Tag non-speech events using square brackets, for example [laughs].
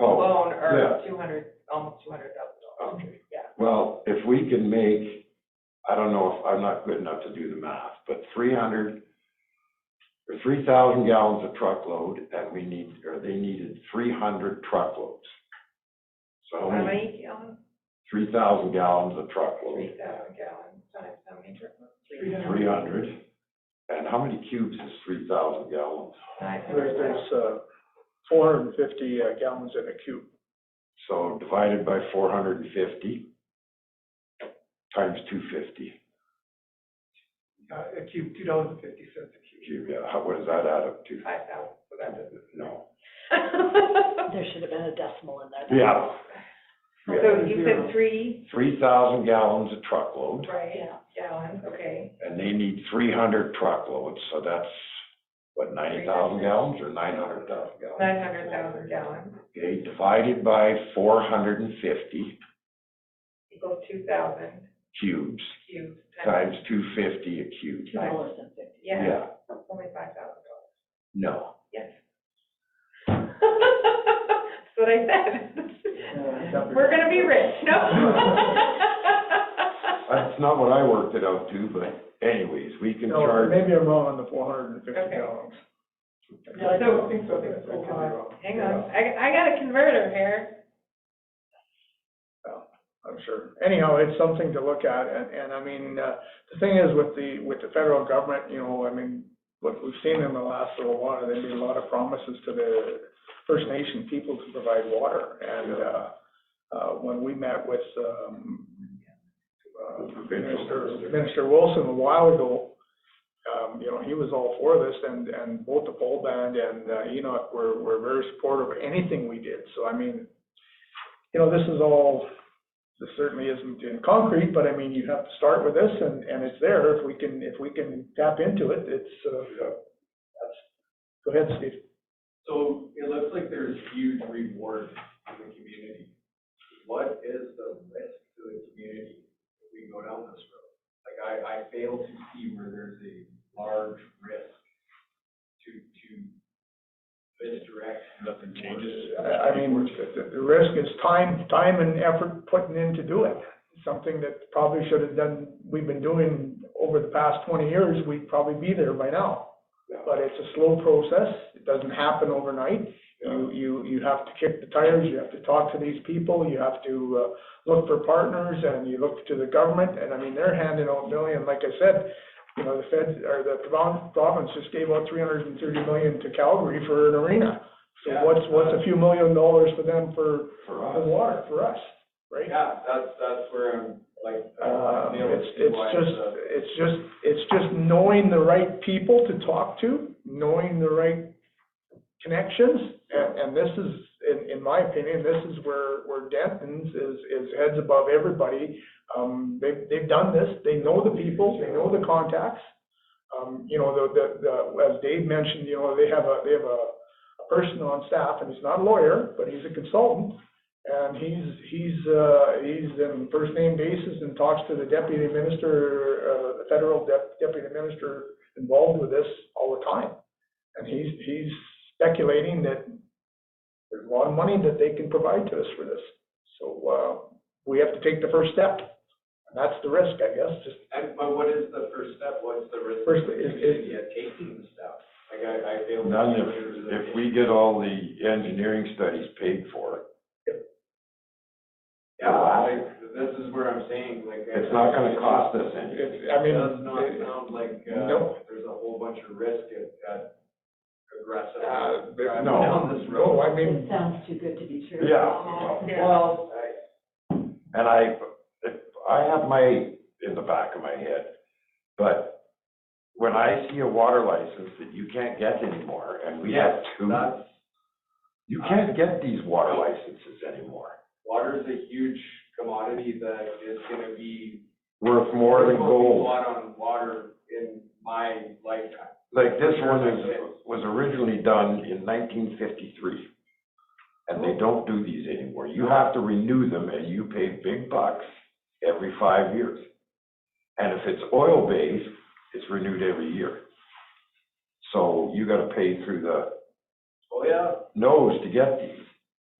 Oh, alone are yeah. two hundred, almost two hundred thousand dollars. okay. Yeah. Well, if we can make, I don't know if, I'm not good enough to do the math, but three hundred or three thousand gallons a truckload, and we need, or they needed three hundred truckloads. So How many gallons? three thousand gallons a Three truckload, thousand gallons times how many truckloads? three hundred. And how many cubes is three thousand gallons? Nine There's, hundred thousand. there's, uh, four hundred and fifty uh, gallons in a cube. So divided by four hundred and fifty times two fifty. Uh, A cube, two dollars and fifty cents a cube. Gee, yeah, how, what does that add up to? Five thousand, so that doesn't. No. There should have been a decimal in there. Yeah. So you said three, Three thousand gallons a truckload, right, Yeah. gallons, okay. and they need three hundred truckloads, so that's, what, ninety thousand gallons or nine hundred thousand gallons? Nine hundred thousand gallons Okay, divided by four hundred and fifty equals two thousand cubes cubes times. times two fifty a cube. Two dollars and fifty. Yeah, only five thousand dollars, No, yes. [laughs] That's what I said. We're gonna be rich, [laughs] no? that's not what [laughs] I worked it out to, but anyways, we can No, charge. maybe I'm wrong on the four hundred and fifty Okay. gallons. No, I don't think so. Hang on, I, I got a converter here. I'm sure. Anyhow, it's something to look at, and, and I mean, uh, the thing is with the, with the federal government, you know, I mean, what we've seen in the last little while, they made a lot of promises to the First Nation people to provide water, and, uh, uh, when we met with, um, uh, Minister, Minister Wilson a while ago, um, you know, he was all for this, and, and both the pole band and uh, Enoch were, were very supportive of anything we did, so I mean, you know, this is all this certainly isn't in concrete, but I mean, you have to start with this and, and it's there. If we can, if we can tap into it, it's, uh, that's, go ahead, Steve. So it looks like there's huge reward in the community. What is the risk to the community if we go down this road? Like, I, I fail to see where there's a large risk to, to misdirect. Nothing I I mean, the, the risk is time, time and effort putting in to do it. Something that probably should have done, we've been doing over the past twenty years, we'd probably be there by now. But it's a slow process. It doesn't happen overnight. You, you, you have to kick the tires, you have to talk to these people, you have to, uh, look for partners, and you look to the government, and I mean, they're handing out million, like I said, you know, the Fed, or the provin- province just gave out three hundred and thirty million to Calgary for an arena. So Yeah. what's, what's a few million dollars for them for, For for us. water, for us, right? Yeah, that's, that's where I'm, like. I Uh, fail to it's, see it's why just, a- it's just, it's just knowing the right people to talk to, knowing the right connections, and, and this is, in, in my opinion, this is where, where Denton's is, is heads above everybody. Um, they've, they've done this, they know the people, they know the contacts. Um, you know, the, the, the, as Dave mentioned, you know, they have a, they have a a person on staff, and he's not a lawyer, but he's a consultant, and he's, he's, uh, he's in first name basis and talks to the deputy minister, uh, the federal dep- deputy minister involved with this all the time. And he's, he's speculating that there's a lot of money that they can provide to us for this. So, uh, we have to take the first step. And that's the risk, I guess, just And, but what is the first step? What's the risk? First, to the is- is- community at taking the step? Like, I, I fail. to None see if, where there's a- if we get all the engineering studies paid for, Yeah, like, this is where I'm saying, like. I- it's not gonna cost us anything. it's, I It mean. does not it- sound like, no. uh, there's a whole bunch of risk at, at aggressive. Uh, there- driving no, Down this No, road. I mean, It sounds too good to be true. Yeah. Well, I- And I, I have my, in the back of my head, but when I see a water license that you can't get anymore, and we have Yes, two, That's, you can't get these water licenses anymore. water's a huge commodity that is gonna be. Worth more than there's gonna be A gold. lot on water in my lifetime. Like this one is, was originally done in nineteen fifty-three. And they don't do these anymore. You have to renew them and you pay big bucks every five years. And if it's oil-based, it's renewed every year. So you gotta pay through the Oh, yeah, nose to get these.